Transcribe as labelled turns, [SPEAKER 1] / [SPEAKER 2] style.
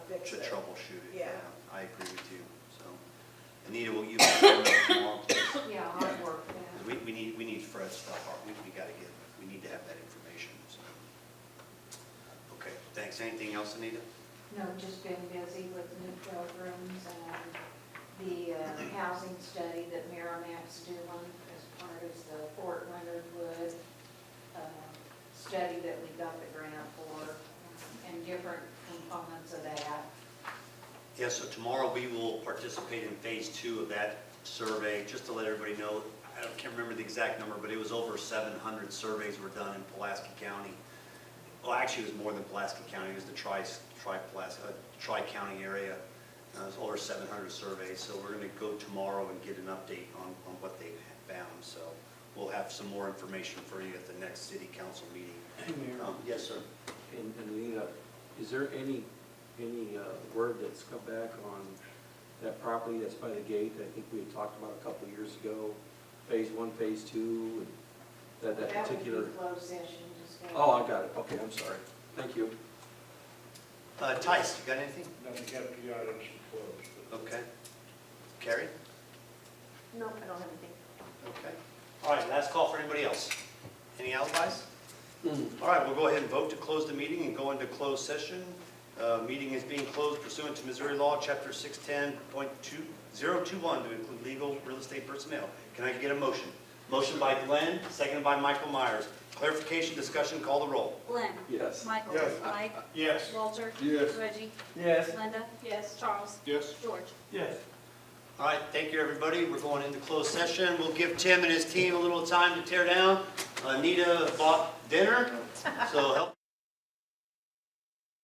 [SPEAKER 1] fix
[SPEAKER 2] to
[SPEAKER 1] it.
[SPEAKER 2] troubleshoot it.
[SPEAKER 1] Yeah.
[SPEAKER 2] I agree with you, so. Anita, will you? Because
[SPEAKER 3] Yeah, hard work, yeah.
[SPEAKER 2] we, we need, we need Fred's stuff, or we, we gotta get, we need to have that information, so. Okay, thanks. Anything else, Anita?
[SPEAKER 3] No, just been busy with new programs and the uh, housing study that Merrimac's doing as part of the Fort Leonard Wood uh, study that we got the grant for um, and different components of that.
[SPEAKER 2] Yeah, so tomorrow we will participate in phase two of that survey, just to let everybody know, I don't- can't remember the exact number, but it was over 700 surveys were done in Pulaski County. Well, actually, it was more than Pulaski County, it was the tri, tri-Pulas- uh, tri-county area. Uh, It was over 700 surveys, so we're going to go tomorrow and get an update on, on what they found. So we'll have some more information for you at the next city council meeting.
[SPEAKER 4] Hey, Mayor,
[SPEAKER 2] Um, Yes, sir.
[SPEAKER 4] and and Lena, uh, is there any, any uh, word that's come back on that property that's by the gate? I think we had talked about a couple of years ago, phase one, phase two, and that, that particular.
[SPEAKER 3] That would be closed session discussion.
[SPEAKER 4] Oh, I got it, okay, I'm sorry, thank you.
[SPEAKER 2] Uh, Tice, you got anything?
[SPEAKER 5] Nothing got the items closed, but
[SPEAKER 2] Okay. Carrie?
[SPEAKER 3] No, I don't have anything.
[SPEAKER 2] Okay. All right, last call for anybody else. Any alibis? All right, we'll go ahead and vote to close the meeting and go into closed session. Uh, Meeting is being closed pursuant to Missouri law, Chapter 610.2021, to include legal real estate personnel. Can I get a motion? Motion by Glenn, seconded by Michael Myers. Clarification, discussion, call the roll.
[SPEAKER 6] Glenn.
[SPEAKER 4] Yes.
[SPEAKER 6] Michael.
[SPEAKER 5] Yes.
[SPEAKER 6] Mike.
[SPEAKER 5] Yes.
[SPEAKER 6] Walter.
[SPEAKER 5] Yes.
[SPEAKER 6] Reggie.
[SPEAKER 4] Yes.
[SPEAKER 6] Linda. Yes. Charles.
[SPEAKER 5] Yes.
[SPEAKER 6] George.
[SPEAKER 4] Yes.
[SPEAKER 2] All right, thank you, everybody. We're going into closed session. We'll give Tim and his team a little time to tear down. Anita bought dinner, so help.